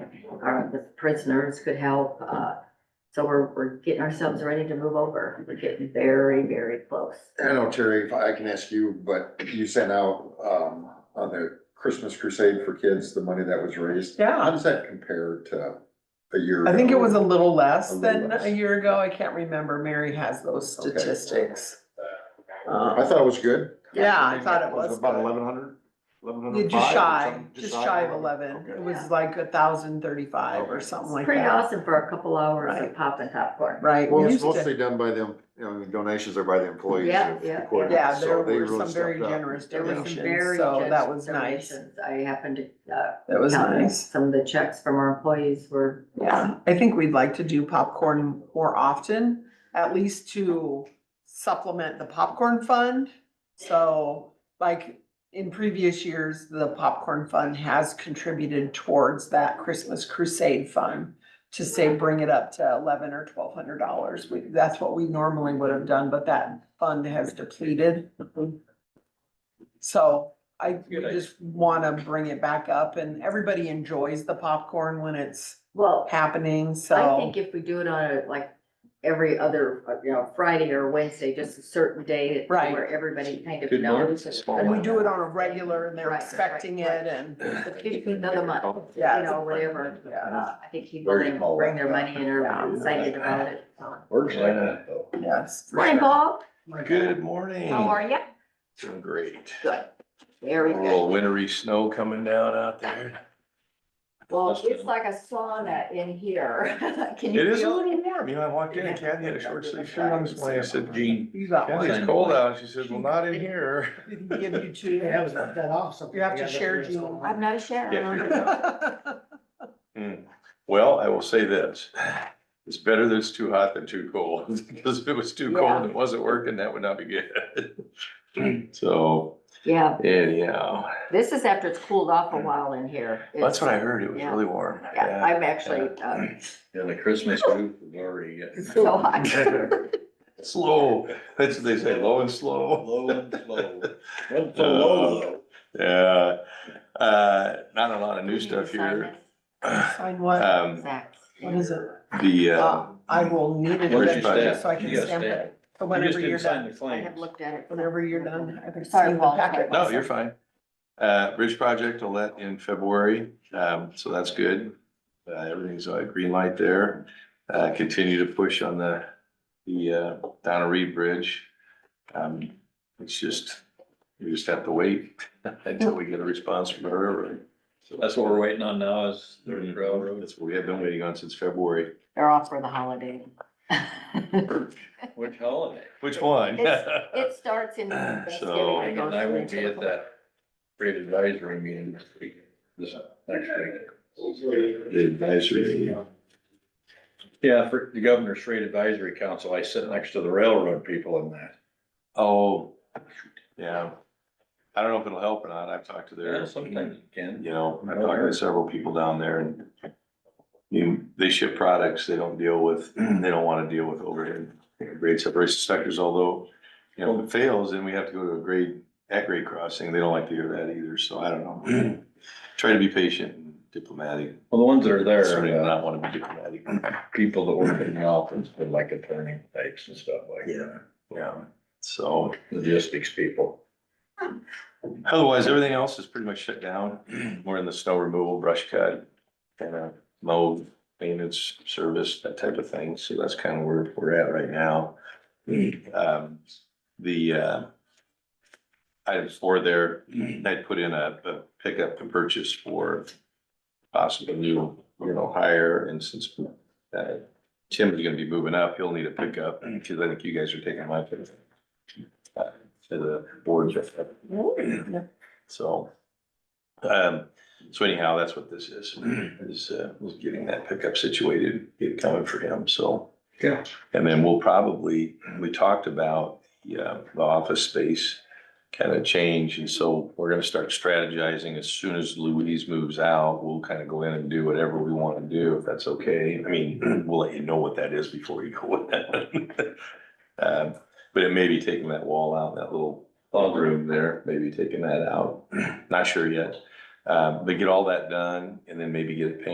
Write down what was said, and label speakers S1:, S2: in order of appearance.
S1: our, the prisoners could help, uh, so we're, we're getting ourselves ready to move over, we're getting very, very close.
S2: I don't know, Terry, if I can ask you, but you sent out, um, on the Christmas crusade for kids, the money that was raised. How
S3: Yeah,
S2: does that compare to a year?
S3: I think it
S2: ago?
S3: was a little
S2: A
S3: less
S2: little
S3: than
S2: less.
S3: a year ago. I can't remember. Mary has those
S2: Okay.
S3: statistics.
S2: I
S3: Um,
S2: thought it was good.
S3: Yeah, I thought it was
S4: About
S3: good.
S4: eleven hundred? Eleven
S3: yeah,
S4: hundred
S3: Just
S4: five or
S3: shy,
S4: something?
S3: just shy of eleven. It was like a thousand thirty-five or
S4: Okay.
S3: something like
S1: Pretty
S3: that.
S1: awesome for a couple hours of
S3: Right.
S1: popping popcorn.
S3: Right. we
S4: Well, it's
S3: used to-
S4: mostly done by them, you know, donations are by the employees.
S1: Yeah,
S4: of the
S1: yeah, yeah.
S4: courthouse,
S3: Yeah,
S4: so
S3: there
S4: they
S3: were
S4: really
S3: some very
S4: stepped up.
S3: generous
S1: There were some
S3: donations,
S1: very
S3: so that was
S1: generous
S3: nice.
S1: donations. I happened to, uh,
S3: That was
S1: count it.
S3: nice.
S1: some of the checks from our employees were.
S3: Yeah, I think we'd like to do popcorn more often, at least to supplement the popcorn fund. So like in previous years, the popcorn fund has contributed towards that Christmas crusade fund to say, bring it up to eleven or twelve hundred dollars. We, that's what we normally would have done, but that fund has depleted. So I we just wanna bring it back up and everybody enjoys the popcorn when it's
S1: Well,
S3: happening,
S1: I
S3: so.
S1: think if we do it on a, like, every other, uh, you know, Friday or Wednesday, just a certain day
S3: Right.
S1: where everybody kind of
S2: Good morning.
S1: knows.
S3: And we do it on a
S1: Right,
S3: regular and they're
S1: right,
S3: expecting
S1: right.
S3: it and,
S1: The fifteenth of the month, you
S3: Yeah.
S1: know, whatever,
S3: yeah,
S1: uh, I think people
S2: Very small.
S1: bring their money and are
S3: Yeah.
S1: excited about it.
S2: Works like that though.
S3: yes.
S1: Morning, Bob,
S5: Good morning.
S1: how are you?
S5: Doing great.
S1: Good,
S5: A
S1: very good.
S5: little wintry snow coming down out there.
S1: Well, it's like a sauna in here. Can
S5: It
S1: you
S5: is a
S1: feel?
S5: little warm. You know, I walked in and Kathy had a short sleeve shirt on this morning. I said, Jean,
S3: You got
S5: Kathy,
S3: one.
S5: it's cold out. She said, well, not in here.
S3: We can Give you two.
S6: Yeah, was that off something.
S3: You have to share, Jean.
S1: I'm not a sharer.
S5: Yeah. Hmm. Well, I will say this. It's better that it's too hot than too cold, because if it was too cold and it wasn't working, that would not be good. So
S1: Yeah,
S5: anyhow,
S1: this is after it's cooled off a while in here.
S5: Mm. that's what I heard. It was
S1: Yeah.
S5: really warm.
S1: Yeah, I'm actually, uh,
S4: Yeah, the Christmas roof is already getting
S1: so hot.
S5: Slow. That's what they say, low and slow.
S4: low and slow. Uh,
S5: so low, Yeah, uh, not a lot of new stuff here.
S3: Sign what?
S5: Um,
S1: Zach.
S3: What is it?
S5: the, uh,
S3: Uh, I will need it
S5: Where's your
S3: eventually
S5: stamp?
S3: so I can
S4: You got a
S3: stamp
S4: stamp.
S3: it. So whenever you're done,
S1: I have looked at it.
S3: whenever you're done, I can
S1: Sorry,
S3: sign the
S1: Walt.
S3: packet.
S5: no, you're fine. Uh, bridge project will let in February, um, so that's good. Uh, everything's a green light there. Uh, continue to push on the, the, uh, Donna Reed Bridge. Um, it's just, we just have to wait until we get a response from her. So
S4: That's what we're waiting on now is the
S5: Mhm.
S4: railroad.
S5: That's what we have been waiting on since February.
S1: They're off for the holiday.
S4: Uh, Which holiday?
S5: Which one?
S1: It starts in
S5: So-
S1: Thanksgiving.
S4: And
S1: goes
S4: I will be
S1: into
S4: at
S1: the-
S4: that freight advisory meeting this week, this next week.
S5: The advisory.
S4: Yeah, for the governor's freight advisory council, I sit next to the railroad people in that.
S5: Oh, yeah. I don't know if it'll help or not. I've talked to
S4: Yeah,
S5: their,
S4: sometimes you can.
S5: you know, I've talked to several people down there and you, they ship products, they don't deal with, they don't want to deal with overhead grade separation sectors, although, you know, if it fails, then we have to go to a grade, at grade crossing. They don't like to hear that either, so I don't know. Try to be patient and diplomatic.
S4: Well, the ones that are
S5: Certainly
S4: there, uh,
S5: not want to be diplomatic.
S4: people that work in the office, they're like attorney types and stuff like that.
S5: Yeah, so.
S4: Logistics people.
S5: Otherwise, everything else is pretty much shut down. We're in the snow removal, brush cut, kind of mow, maintenance, service, that type of thing. So that's kind of where we're at right now. Um, the, uh, item four there, I'd put in a, a pickup and purchase for possible new, you know, hire. And since, uh, Tim is gonna be moving up, he'll need a pickup because I think you guys are taking my pickup. uh, To the board. So, um, so anyhow, that's what this is, is, uh, was getting that pickup situated, get it coming for him, so.
S4: Yeah.
S5: And then we'll probably, we talked about, yeah, the office space kind of change, and so we're gonna start strategizing as soon as Louise moves out, we'll kind of go in and do whatever we want to do, if that's okay. I mean, we'll let you know what that is before you go in. Um, but it may be taking that wall out, that little log room there, maybe Uh, taking that out, not sure yet. Um, but get all that done and then maybe get it painted